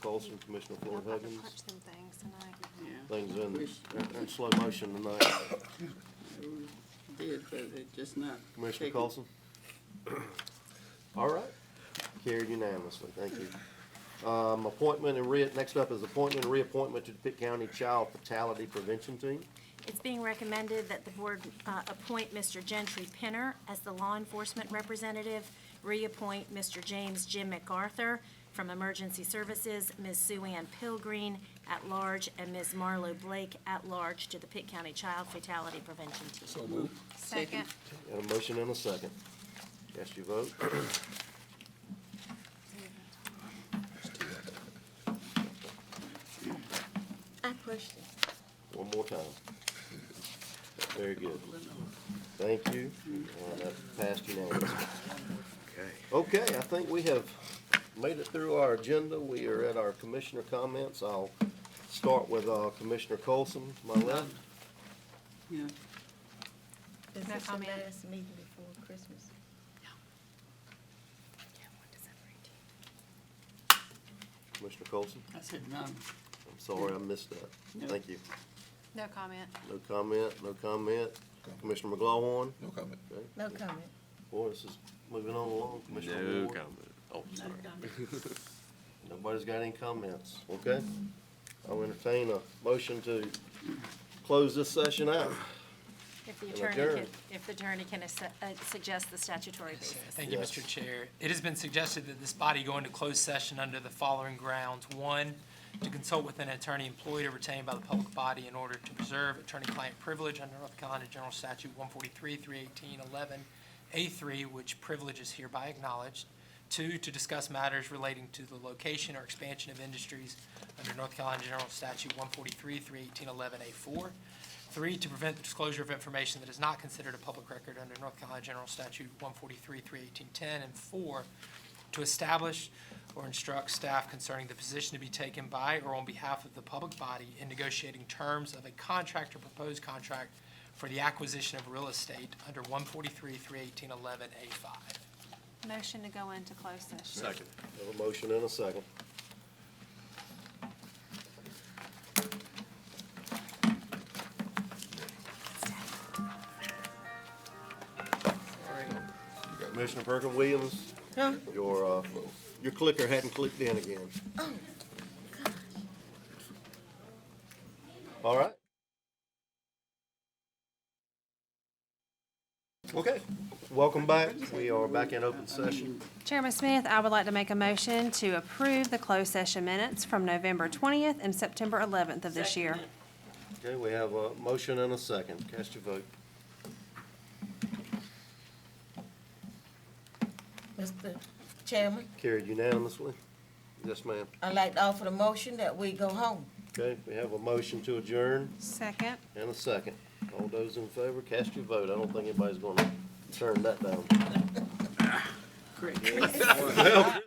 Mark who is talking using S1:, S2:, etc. S1: Coulson, Commissioner Floyd
S2: Y'all about to
S1: Huggins.
S2: punch them things tonight.
S3: Yeah,
S1: Things in, in slow motion tonight.
S3: it did, but it just not.
S1: Commissioner
S3: taken.
S1: Coulson? All right. Carried unanimously, thank you. Um, appointment and re, next up is appointment and reappointment to the Pitt County Child Fatality Prevention Team.
S2: It's being recommended that the board uh, appoint Mr. Gentry Pinner as the law enforcement representative, reappoint Mr. James Jim MacArthur from Emergency Services, Ms. Sue Ann Pilgreen at large, and Ms. Marlo Blake at large to the Pitt County Child Fatality Prevention Team.
S3: Second.
S1: Got a motion and a second. Cast your vote.
S3: I pushed it.
S1: One more time. Very good. Thank you. Uh, That passed unanimously. Okay, I think we have made it through our agenda. We are at our commissioner comments. I'll start with uh, Commissioner Colson, my left.
S3: Yeah,
S4: This
S2: No
S4: is the
S2: comment.
S4: last meeting before Christmas.
S1: Commissioner Colson,
S3: I said none.
S1: I'm sorry I missed that. Thank you.
S2: No comment.
S1: No comment, no comment. Commissioner McGlaughlin,
S5: No comment.
S4: No comment.
S1: boy, this is moving on along. Commissioner
S6: No
S1: Ward?
S6: comment. Oh, sorry.
S1: Nobody's got any comments, okay? I'll entertain a motion to close this session out.
S2: If the
S1: And
S2: attorney can,
S1: adjourned.
S2: if the attorney can ass- uh, suggest the statutory basis.
S7: Thank you,
S1: Yes.
S7: Mr. Chair. It has been suggested that this body go into closed session under the following grounds. One, to consult with an attorney employed or retained by the public body in order to preserve attorney-client privilege under North Carolina General Statute 143, 318, 11, A3, which privilege is hereby acknowledged. Two, to discuss matters relating to the location or expansion of industries under North Carolina General Statute 143, 318, 11, A4. Three, to prevent the disclosure of information that is not considered a public record under North Carolina General Statute 143, 31810. And four, to establish or instruct staff concerning the position to be taken by or on behalf of the public body in negotiating terms of a contract or proposed contract for the acquisition of real estate under 143, 31811 A5.
S2: Motion to go into closed session.
S6: Second.
S1: Have a motion and a second. Commissioner Perkins Williams, your, uh, your clicker hadn't clicked in again. All right. Okay, welcome back. We are back in open session.
S8: Chairman Smith, I would like to make a motion to approve the closed session minutes from November 20th and September 11th of this year.
S1: Okay, we have a motion and a second. Cast your vote.
S4: Mr. Chairman,
S1: Carried unanimously. Yes, ma'am.
S4: I'd like to offer the motion that we go home.
S1: Okay, we have a motion to adjourn
S8: Second.
S1: and a second. All those in favor, cast your vote. I don't think anybody's gonna turn that down.
S3: Great.